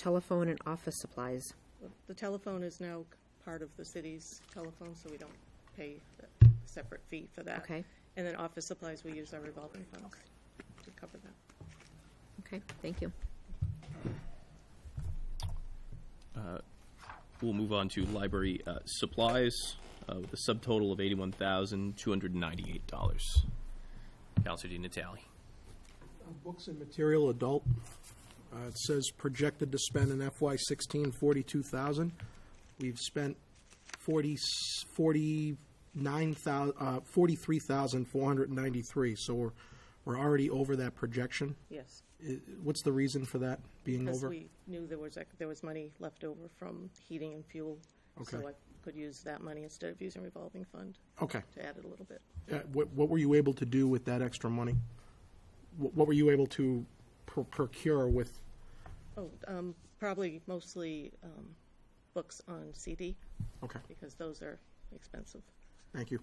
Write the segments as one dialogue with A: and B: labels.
A: telephone and office supplies.
B: The telephone is now part of the city's telephone, so we don't pay a separate fee for that.
A: Okay.
B: And then office supplies, we use our revolving funds to cover that.
A: Okay, thank you.
C: We'll move on to library uh, supplies uh, with a subtotal of eighty-one thousand two hundred ninety-eight dollars. Counselor Di Natale.
D: Books and material adult, uh, it says projected to spend in FY sixteen forty-two thousand. We've spent forty, forty-nine thousand, uh, forty-three thousand four hundred and ninety-three, so we're, we're already over that projection.
B: Yes.
D: I- What's the reason for that being
B: Because
D: over?
B: we knew there was, ec- there was money left over from heating and fuel. So
D: Okay.
B: I could use that money instead of using revolving fund
D: Okay,
B: to add it a little bit.
D: Uh, what, what were you able to do with that extra money? What, what were you able to pr- procure with,
B: Oh, um, probably mostly, um, books on CD
D: okay,
B: because those are expensive.
D: thank you.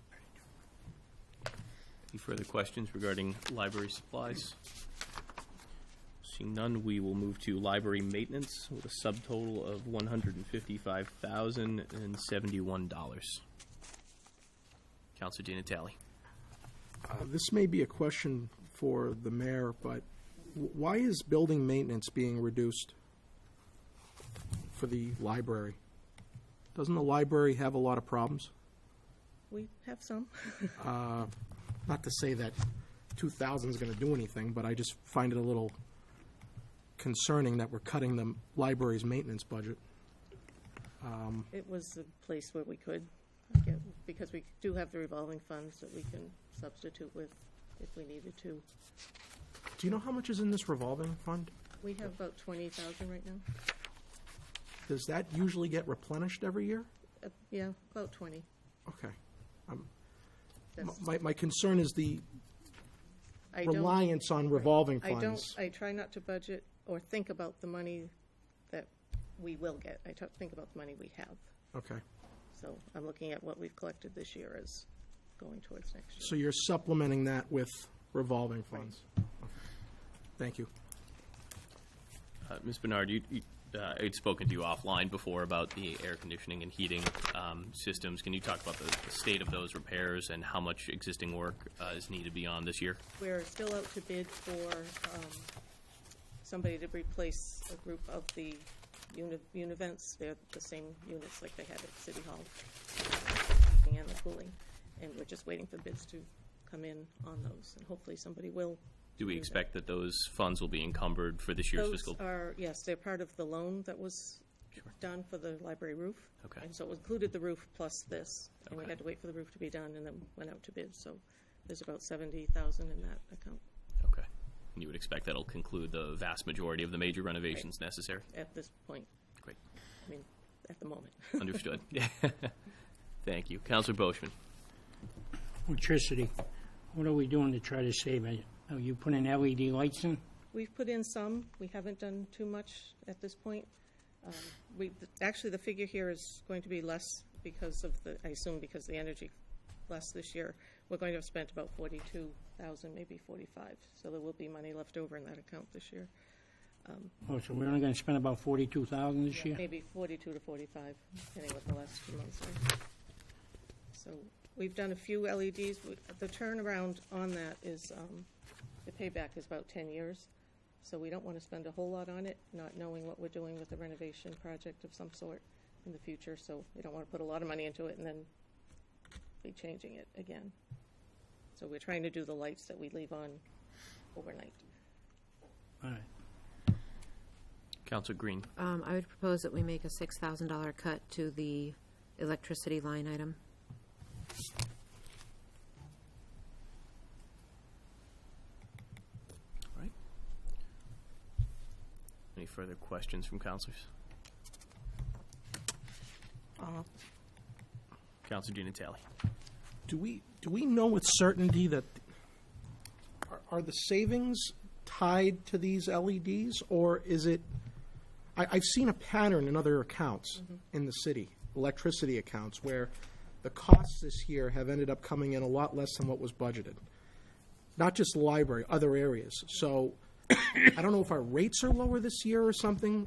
C: Any further questions regarding library supplies? Seeing none, we will move to library maintenance with a subtotal of one hundred and fifty-five thousand and seventy-one dollars. Counselor Di Natale.
D: Uh, This may be a question for the mayor, but w- why is building maintenance being reduced for the library? Doesn't the library have a lot of problems?
B: We have some.
D: Not to say that 2,000 is going to do anything, but I just find it a little concerning that we're cutting the library's maintenance budget.
B: It was a place where we could, I guess, because we do have the revolving funds that we can substitute with if we needed to.
D: Do you know how much is in this revolving fund?
B: We have about twenty thousand right now.
D: Does that usually get replenished every year?
B: Uh, Yeah, about twenty.
D: Okay.
B: That's-
D: My, my concern is the
B: I don't-
D: reliance on revolving
B: I
D: funds.
B: don't, I try not to budget or think about the money that we will get. I t- think about the money we have.
D: Okay.
B: So I'm looking at what we've collected this year as going towards next year.
D: So you're supplementing that with revolving funds? Thank you.
C: Uh, Ms. Bernard, you, you, uh, I'd spoken to you offline before about the air conditioning and heating um, systems. Can you talk about the the state of those repairs and how much existing work uh, is needed beyond this year?
B: We're still out to bid for um, somebody to replace a group of the uni- univents. They're the same units like they had at City Hall. And the cooling. And we're just waiting for bids to come in on those. And hopefully somebody will.
C: Do we
B: that.
C: expect that those funds will be encumbered for this year's
B: Those
C: fiscal?
B: are, yes, they're part of the loan that was done for the library roof.
C: Okay.
B: And so it included the roof plus this. And we
C: Okay.
B: had to wait for the roof to be done and then went out to bid. So there's about 70,000 in that account
C: Okay. And you would expect that'll conclude the vast majority of the major renovations necessary?
B: at this point.
C: Great.
B: I mean, at the moment.
C: Understood. Thank you. Counselor Boishman.
E: Electricity, what are we doing to try to save it? Are you putting LED E lights in?
B: We've put in some, we haven't done too much at this point. Um, We, actually, the figure here is going to be less because of the, I assume because the energy less this year. We're going to have spent about forty-two thousand, maybe forty-five, so there will be money left over in that account this year.
E: Oh, so we're only gonna spend about forty-two thousand this year?
B: Maybe forty-two to forty-five, depending what the last few months are. So, we've done a few LEDs, We- the turnaround on that is, um, the payback is about ten years. So we don't wanna spend a whole lot on it, not knowing what we're doing with the renovation project of some sort in the future, so we don't wanna put a lot of money into it and then be changing it again. So we're trying to do the lights that we leave on overnight.
E: All right.
C: Counselor Green.
A: Um, I would propose that we make a six thousand dollar cut to the electricity line item.
C: All right. Any further questions from counselors? Counselor Di Natale.
D: Do we, do we know with certainty that, are- are the savings tied to these LEDs, or is it, I, I've seen a pattern in other accounts in the city, electricity accounts, where the costs this year have ended up coming in a lot less than what was budgeted. Not just the library, other areas. So I don't know if our rates are lower this year or something,